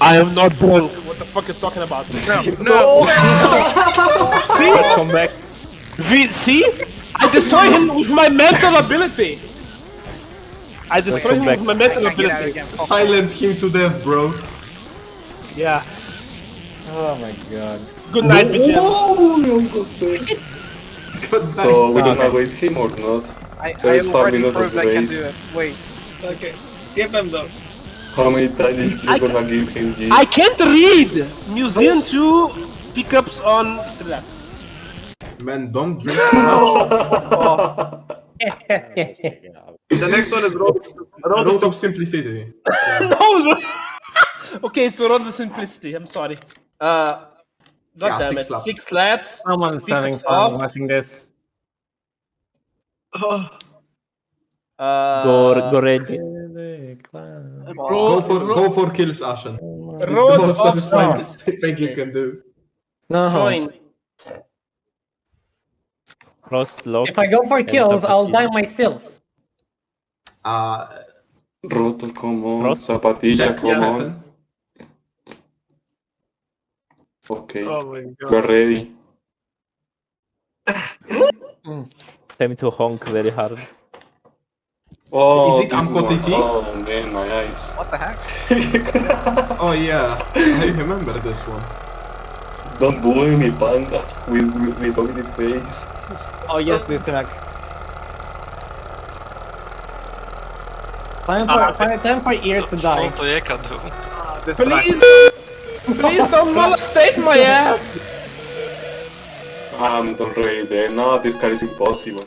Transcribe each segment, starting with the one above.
I am not drunk. What the fuck is talking about? No, no, See? Come back. We, see? I destroy him with my mental ability. I destroy him with my mental Get out ability. again. Silent him to death, bro. Yeah. Oh my god. Good night, bitches. Good So night. we don't know wait him or not. I, I There's already Fabulous proved I can do Race. it. Wait, Okay. Give them though. How many times you I- gonna give him this? I can't read. Museum 2 pickups on traps. Man, don't drink too much. The next one is road. Road of simplicity. No. okay, so on the simplicity. I'm sorry. Uh, Yeah, God damn six it. laps. Six laps. Someone's Pick having us fun up. watching this. Uh, Uh-huh. Go, go red. Go Road, for road, go for kills, Ashen. It's the Road most of- satisfying thing you can do. No, join. cross lock. If I go for Ends kills, up I'll with die you. myself. Uh, Roto, come on. Roto. Zapatilla, that come can on. happen. Okay, Oh my god. we're ready. Time to honk very hard. Oh, Is it this Amco one. TT? Oh man, my eyes. what the heck? Oh yeah, I remember this one. Don't bully me, panda. With with, with ugly face. Oh yes, this track. Time for, Ah, time- time for ears to die. Ah, This Please, please don't molestate my ass. I'm not ready there. No, this car is impossible.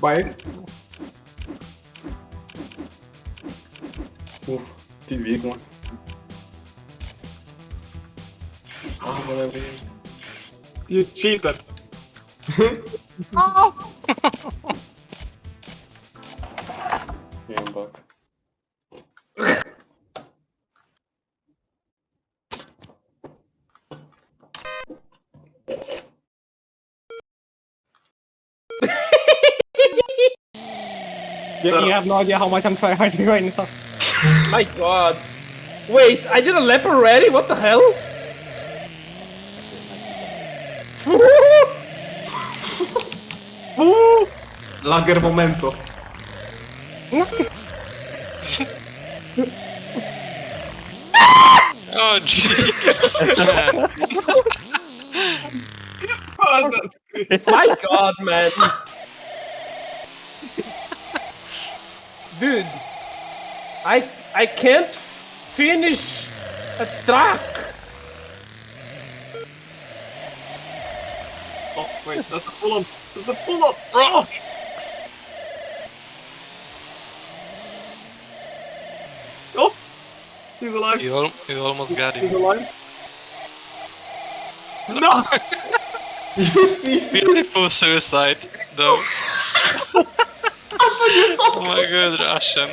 Bye. Oof, the big one. Ah, what a way. You cheated. Yeah, I'm back. You- You have no idea how much I'm tryharding right now. My God. Wait, I did a lap already. What the hell? Lager momento. My God, man. Dude, I I can't finish a track. Oh, wait, that's a full on. That's a full on. Bro! Oh! He's alive. You, al- you almost got He's him. alive. No! You see, see, Beautiful suicide, though. Ashen, you Oh so my god, Russian.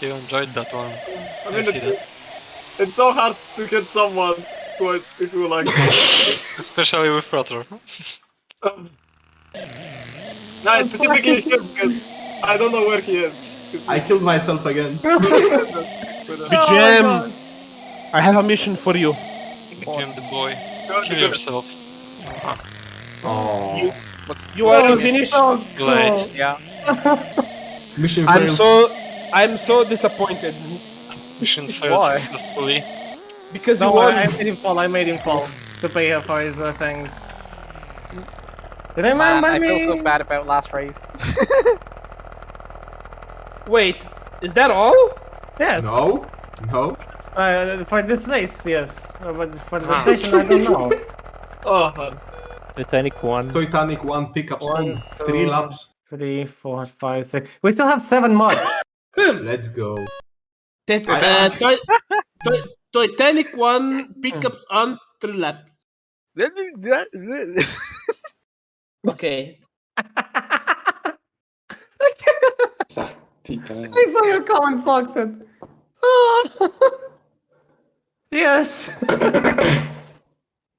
You enjoyed that one. I I mean, see it, that. it's so hard to get someone who, who like. Especially with Rotor. Um, no, it's specifically him because I don't know where he is. I killed myself again. Oh But, uh, BGM, I have a mission for you. Became the boy. no, Kill because- yourself. Oh. You are Oh, finished. Like, Yeah. Mission I'm failed. so I'm so disappointed mission failed successfully. because No, you won. I, I made him fall. I made him fall to pay her for his uh, things. Man, Remember I me? feel so bad about last race. Wait, is that all? Yes. No, no. Uh, for this race, yes. Uh, But for the session, I don't know. Oh, man. Titanic 1. Titanic one pickup One, one, three two. laps. Three, four, five, six. We still have seven more. Let's go. Uh, Ti- Ti- Titanic one pickups on three lap. Okay. Satitan. I saw your comment, Foxen. Oh. yes.